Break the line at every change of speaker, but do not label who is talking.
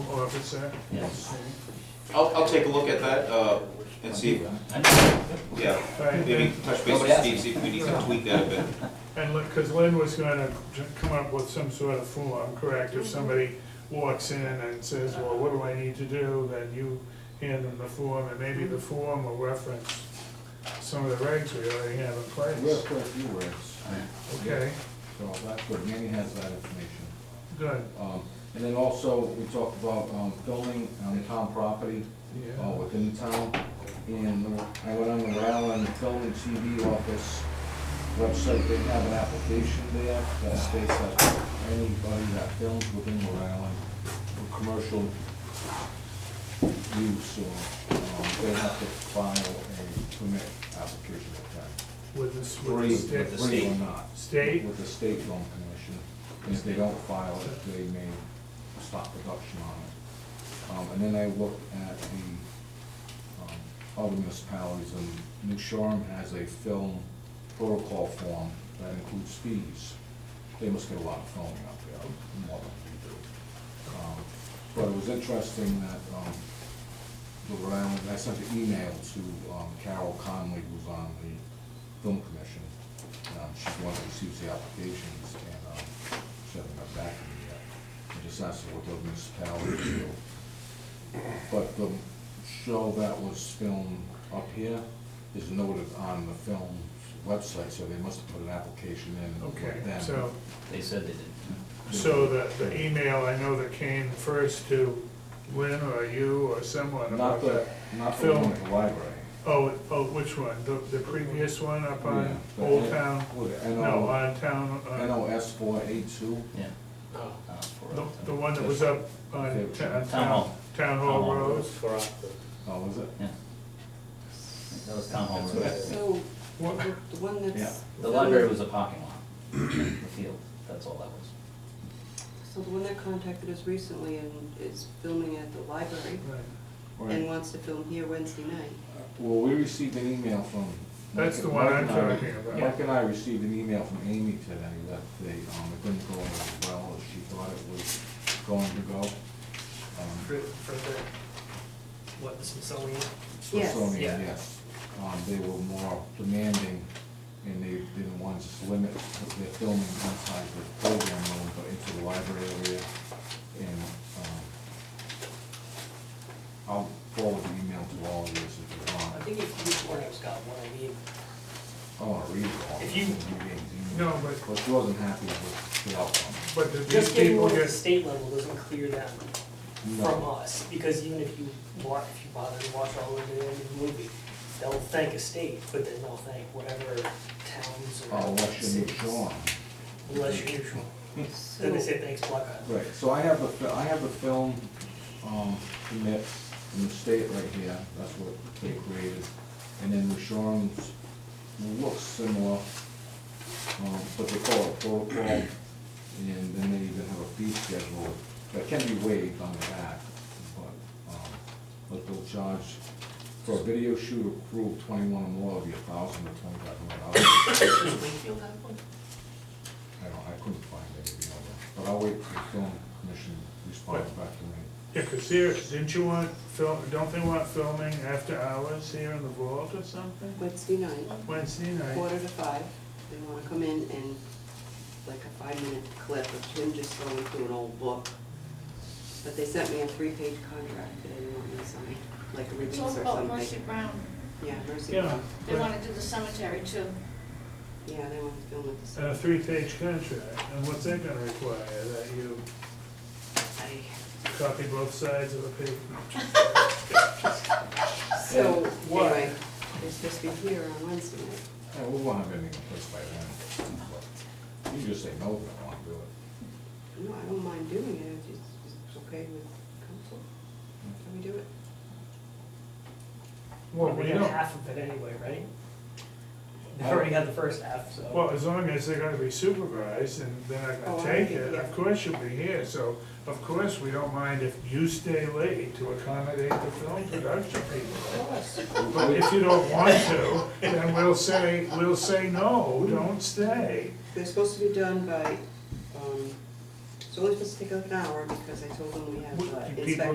it's there.
Yes.
I'll, I'll take a look at that, uh, and see, yeah,
Right,
maybe
and-
touch base with Steve, see if we need to tweak that a bit.
And, because Lynn was gonna j- come up with some sort of form, correct, if somebody walks in and says, well, what do I need to do, then you hand them the form, and maybe the form will reference some of the regs we already have in
We'll
place.
put a few words,
Okay,
so that's good, Manny has that information.
good,
Um, And then also, we talked about um, filming on town property, uh,
yeah,
within town. And I went on the Rowland Film and TV Office website, they have an application there that states that anybody that films within the Rowland for commercial use or, um, they have to file a permit application at that.
with the, s-
Free,
with the
with the
state,
state or not.
state,
With the state film commission, and if they don't file it, they may stop production on it. Um, and then I looked at the, um, other municipalities, and New Shoreham has a film protocol form that includes fees. They must get a lot of filming up there, more than we do. Um, But it was interesting that, um, the Rhode Island, I sent an email to um, Carol Conley, who's on the film commission. Um, She's the one who receives the applications, and um, she hasn't got back to me yet. I just asked her what the municipalities do. But the show that was filmed up here is noted on the film's website, so they must have put an application in
okay,
with them.
so,
They said they did.
so the, the email I know that came first to Lynn or you or someone
Not
about
the,
that.
not the one
Film.
at the library.
Oh, oh, which one? The, the previous one up
Yeah,
on
but
Old
it-
Town?
With
No,
NO,
on Town, uh,
NOS four eight two.
Yeah.
Oh,
Uh, for
the,
all
the
time.
one that was up on Ta-
Town
Town,
Hall.
Town
Town
Hall
Hall
Road.
for us, but-
Oh, is it?
Yeah. That was town hall.
That's
room.
what I said.
So,
What,
the the one that's.
The library was a parking lot, the field, that's all that was.
So the one that contacted us recently and is filming at the library
right.
and
Right.
wants to film here Wednesday night.
Well, we received an email from.
That's
Mike-
the one
Mike
I'm
and I-
talking about.
Mike and I received an email from Amy today that they, um, it didn't go as well as she thought it was going to go. Um,
For, for the, what, the Smithsonian?
Yes.
Smithsonian,
Yeah.
yes. Um, they were more demanding, and they didn't want to just limit their filming inside the program room, but into the library area. And, um, I'll forward the email to all of you if you
I
want. Oh,
think if each one of us got one, I mean,
I wanna read it all.
If you-
No, but-
But she wasn't happy with the outcome.
But did these
just getting
people
one at the
get,
state level doesn't clear them from
No.
us, because even if you wa, if you bother to watch all of the end of the movie, they'll thank a state, but then they'll thank whatever towns
Uh,
or
Unless you're
cities.
Nick Shawn.
Unless you're neutral. Then
So,
they say thanks, Black Island.
Right, so I have the, fi- I have the film, um, permit from the state right here, that's what they created. And then the Shorehams looks similar, um, but they call it protocol. And then they even have a fee schedule that can be waived on the back, but, um, but they'll charge for a video shoot or crew of twenty-one or more, it'll be a thousand or twenty-five hundred dollars.
Does Wakefield have one?
I don't, I couldn't find anything on that, but I'll wait for the film commission response back to me.
yeah, cause here, didn't you want film, don't they want filming after hours here in the vault or something?
Wednesday night,
Wednesday night,
quarter to five, they wanna come in and like a five-minute clip of him just going through an old book. But they sent me a three-page contract that they want me to sign, like a
It's
release or
all about Mercy
something.
Brown.
Yeah, Mercy.
yeah,
They
but-
want to do the cemetery too.
Yeah, they want to film with the.
and a three-page contract, and what's that gonna require, that you copy both sides of the paper?
So,
why?
anyway, it's supposed to be here on Wednesday night.
Yeah, we won't have anything in place by then, but you can just say no, if you don't wanna do it.
No, I don't mind doing it, if it's, it's okay with council. Can we do it?
Well,
We
we
got
don't,
half of it anyway, right? They already got the first half, so.
Well, as long as they're gonna be supervised and they're not
Oh,
gonna
I'll
take
be
it,
here.
of course you'll be here, so of course we don't mind if you stay late to accommodate the film production people. But if you don't want to, then we'll say, we'll say, no, don't stay.
They're supposed to be done by, um, it's only supposed to take like an hour because I told them we have uh,
What, do
inspection.
people